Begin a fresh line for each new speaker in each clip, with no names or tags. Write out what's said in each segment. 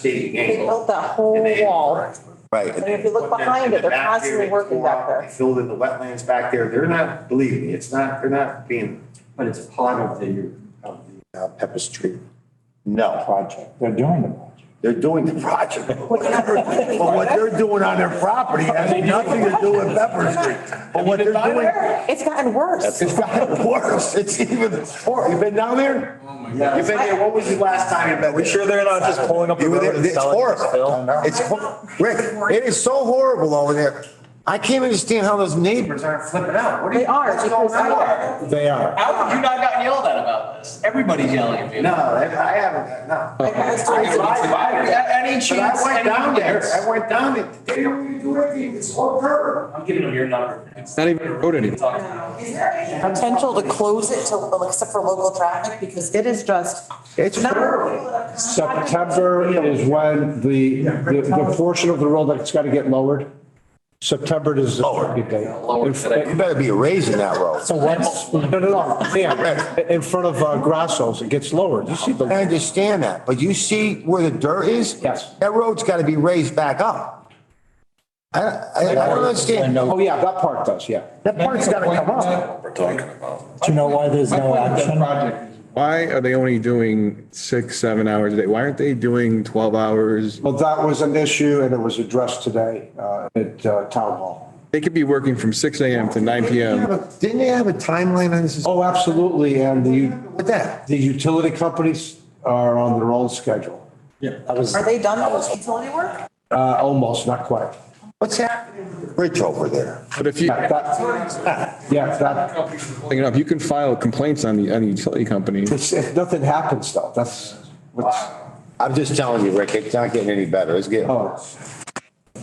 Staging
They
angle.
built that whole
And they-
wall.
Right,
And if you look behind it, they're constantly working back there.
They Filled in the wetlands back there. They're not, believe me, it's not, they're not being.
But it's part of the, of the uh, Pepper Street
no,
project. They're doing the project.
they're doing the project. But what they're doing on their property has nothing to do with Pepper Street. But what they're doing,
It's gotten worse.
it's gotten worse, it's even worse. You been down there?
You've been there, what was the last time you've been there?
We sure they're not just pulling up the
You were there,
road and
it's
selling it to
horrible.
Phil?
It's, hor- Rick, it is so horrible over there. I can't understand how those neighbors aren't flipping out. What are you?
They are
what's going
because I,
on?
They are.
How have you not gotten yelled at about this? Everybody's yelling at me.
No, I I haven't, no.
I passed
I
through-
drive by it.
Any
But I
chance,
went
any
down there,
chance.
I went down there. They don't even do anything. It's all dirt.
I'm giving them your number. It's
Not even a road anymore.
talking about.
potential to close it to, except for local traffic because it is just.
It's
September is when the, the the portion of the road that's got to get lowered. September is the target date.
Lower today.
You better be raising that road.
So once, no, no, no, yeah, in front of uh, Grasso's, it gets lowered. You see
I
the,
understand that, but you see where the dirt is?
Yes.
That road's got to be raised back up. I, I I don't understand.
oh yeah, that part does, yeah.
That part's got to come up.
Do you know why there's no action?
Why are they only doing six, seven hours a day? Why aren't they doing 12 hours?
Well, that was an issue and it was addressed today uh, at uh, Town Hall.
They could be working from 6 AM to 9 PM.
Didn't they have a timeline on this?
Oh, absolutely, and the,
What that?
the utility companies are on their own schedule.
Are they done with utility work?
Uh, Almost, not quite.
What's happening? with the Bridge over there.
But if you,
Yeah, that- yeah, that,
pulling it up, you can file complaints on the, on the utility company.
it's- if nothing happens though, that's what's,
I'm just telling you, Rick, it's not getting any better. It's getting,
oh.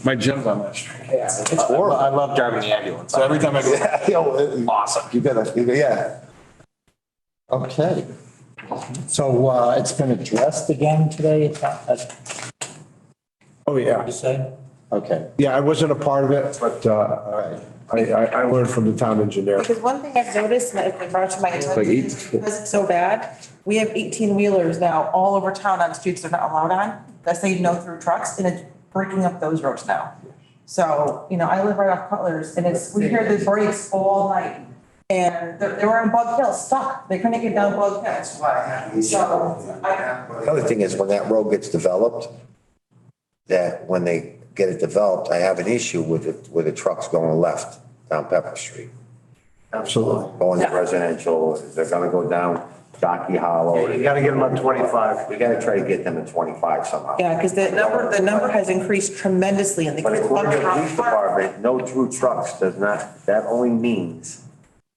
My gym's on that street.
it's horrible.
I love driving the ambulance.
So every time I go,
Awesome. You gotta, you gotta- yeah. Okay.
So uh, it's been addressed again today, it's not- that's what
Oh, yeah.
you said?
Okay.
Yeah, I wasn't a part of it, but uh, I, I I learned from the town engineer.
Because one thing I've noticed that has brought to my attention is because it's so bad, we have eighteen wheelers now all over town on streets they're not allowed on. That's say no through trucks and it's breaking up those roads now. So, you know, I live right off Cutler's and it's, we hear the brakes all night. And they, they were on Bug Hill, stuck. They couldn't get down Bug Hill. So I,
The other thing is when that road gets developed, that when they get it developed, I have an issue with it, with the trucks going left down Pepper Street.
Absolutely.
Going to residential, they're gonna go down Jockey Hollow. You gotta get them on twenty-five. We gotta try to get them at twenty-five somehow.
yeah, because the number, the number has increased tremendously and they.
But
keep
according to the
bumping
police
off.
department, no true trucks does not, that only means,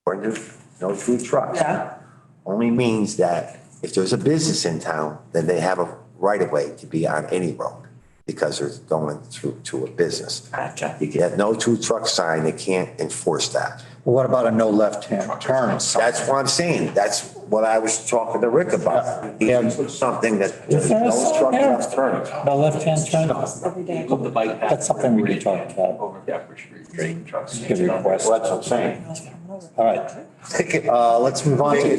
according to, no true trucks.
Yeah.
Only means that if there's a business in town, then they have a right of way to be on any road because they're going through to a business.
Gotcha.
You have no true truck sign, they can't enforce that.
What about a no left-hand turn?
That's what I'm saying. That's what I was talking to Rick about. He put something that, no
there a
truck
sign there?
left turn.
No left-hand turn?
Every day.
Look the bike path.
That's something we can talk about.
Over Pepper Street. Straight trucks.
Give a request.
Well, that's what I'm saying.
All right.
Uh, let's move on to.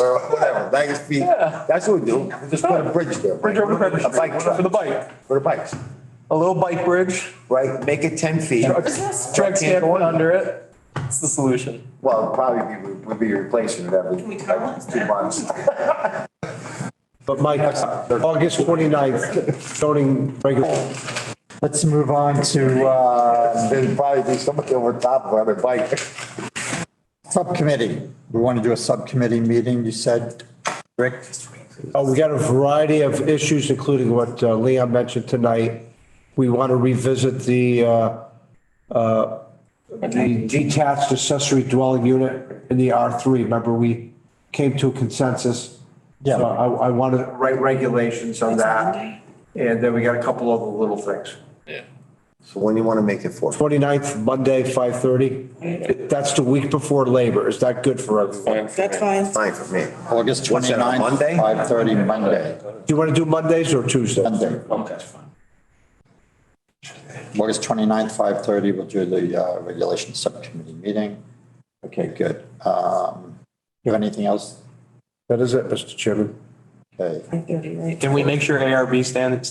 Or whatever, bag of feet. That's what we do. We just put a bridge there. Bridge over Pepper A bike track. For the bike. For the bikes,
A little bike bridge,
right? Make it ten feet.
trucks can't go under it. It's the solution.
Well, probably be- we'd be replacing it every every two months.
But Mike, August 29th, zoning regulation.
Let's move on to uh,
There'd probably be somebody over top of another bike.
subcommittee. We want to do a subcommittee meeting, you said, Rick?
Uh, We got a variety of issues, including what uh, Leon mentioned tonight. We want to revisit the, uh, uh, the detached accessory dwelling unit in the R3. Remember, we came to a consensus.
Yeah.
So I, I want to write regulations on that. And then we got a couple of little things.
So when do you want to make it for?
29th, Monday, 5:30. That's the week before Labor. Is that good for everyone?
That's fine.
Fine for me.
August
What's that, on
29th.
Monday?
5:30 Monday.
Do you want to do Mondays or Tuesdays?
Monday. Okay. August 29th, 5:30, we'll do the uh, regulation subcommittee meeting. Okay, good. Um, You have anything else?
That is it, Mr. Chairman.
Okay.
Can we make sure ARB stands,